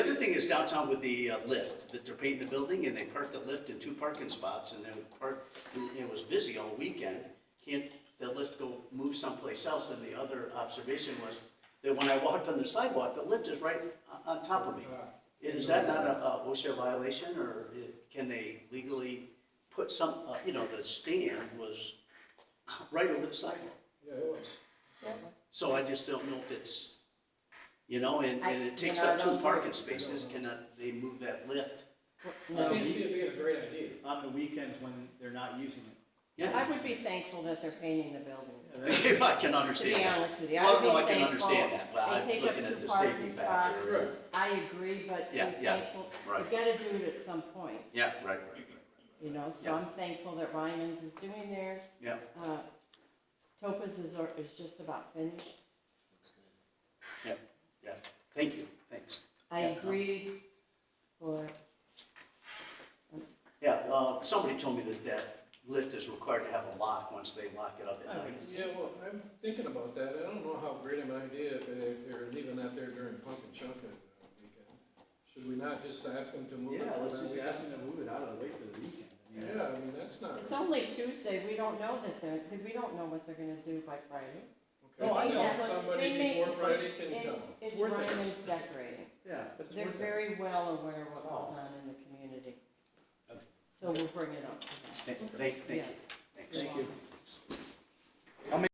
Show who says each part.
Speaker 1: downtown with the uh, lift, that they're painting the building, and they parked the lift in two parking spots, and they would park, and it was busy all weekend. Can't the lift go move someplace else? And the other observation was that when I walked on the sidewalk, the lift is right o- on top of me. Is that not a a OSHA violation, or i- can they legally put some, uh, you know, the stand was right over the sidewalk?
Speaker 2: Yeah, it was.
Speaker 1: So I just don't know if it's, you know, and,
Speaker 3: I-
Speaker 1: and it takes
Speaker 3: you know,
Speaker 1: up
Speaker 3: I
Speaker 1: two
Speaker 3: don't-
Speaker 1: parking spaces, cannot they move that lift?
Speaker 2: I can't see it being a great idea.
Speaker 4: on the weekends when they're not using it.
Speaker 3: I
Speaker 1: Yeah,
Speaker 3: would be thankful that they're painting the buildings.
Speaker 1: I can
Speaker 3: To be
Speaker 1: understand that.
Speaker 3: honest with you, I
Speaker 1: Well,
Speaker 3: would be
Speaker 1: no, I
Speaker 3: thankful.
Speaker 1: can understand that, well, I
Speaker 3: They
Speaker 1: was
Speaker 3: take up
Speaker 1: looking
Speaker 3: two
Speaker 1: at the safety
Speaker 3: parking spots.
Speaker 1: factor.
Speaker 3: I agree, but be
Speaker 1: Yeah, yeah,
Speaker 3: thankful,
Speaker 1: right.
Speaker 3: you gotta do it at some point,
Speaker 1: Yeah, right, right,
Speaker 3: you know, so
Speaker 1: Yeah.
Speaker 3: I'm thankful that Ryman's is doing theirs.
Speaker 1: yeah.
Speaker 3: Uh, Topaz is, or- is just about finished.
Speaker 1: Yeah, yeah, thank you, thanks.
Speaker 3: I agreed for,
Speaker 1: Yeah, uh, somebody told me that that lift is required to have a lock once they lock it up at night.
Speaker 3: Oh,
Speaker 2: Yeah, well, I'm thinking about that. I don't know how great an idea if they- if they're leaving that there during pumpkin chunkin uh, weekend. Should we not just ask them to move it?
Speaker 4: Yeah,
Speaker 2: for
Speaker 4: let's
Speaker 2: that
Speaker 4: just
Speaker 2: weekend?
Speaker 4: ask them to move it out of the way for the weekend. I mean,
Speaker 2: Yeah, I mean, that's not.
Speaker 3: it's only Tuesday, we don't know that they're, we don't know what they're gonna do by Friday.
Speaker 2: Okay, I
Speaker 3: They
Speaker 2: know
Speaker 3: have-
Speaker 2: somebody
Speaker 3: Oh, they make-
Speaker 2: before Friday can come.
Speaker 3: It's, it's
Speaker 4: worth it.
Speaker 3: Ryman's decorating.
Speaker 4: Yeah, but it's
Speaker 3: They're
Speaker 4: worth it.
Speaker 3: very well aware of what goes on in the community.
Speaker 1: Okay.
Speaker 3: So we'll bring it up. to them.
Speaker 1: Thank, thank you,
Speaker 3: Yes.
Speaker 1: thanks.
Speaker 3: you're
Speaker 4: Thank you.
Speaker 3: welcome.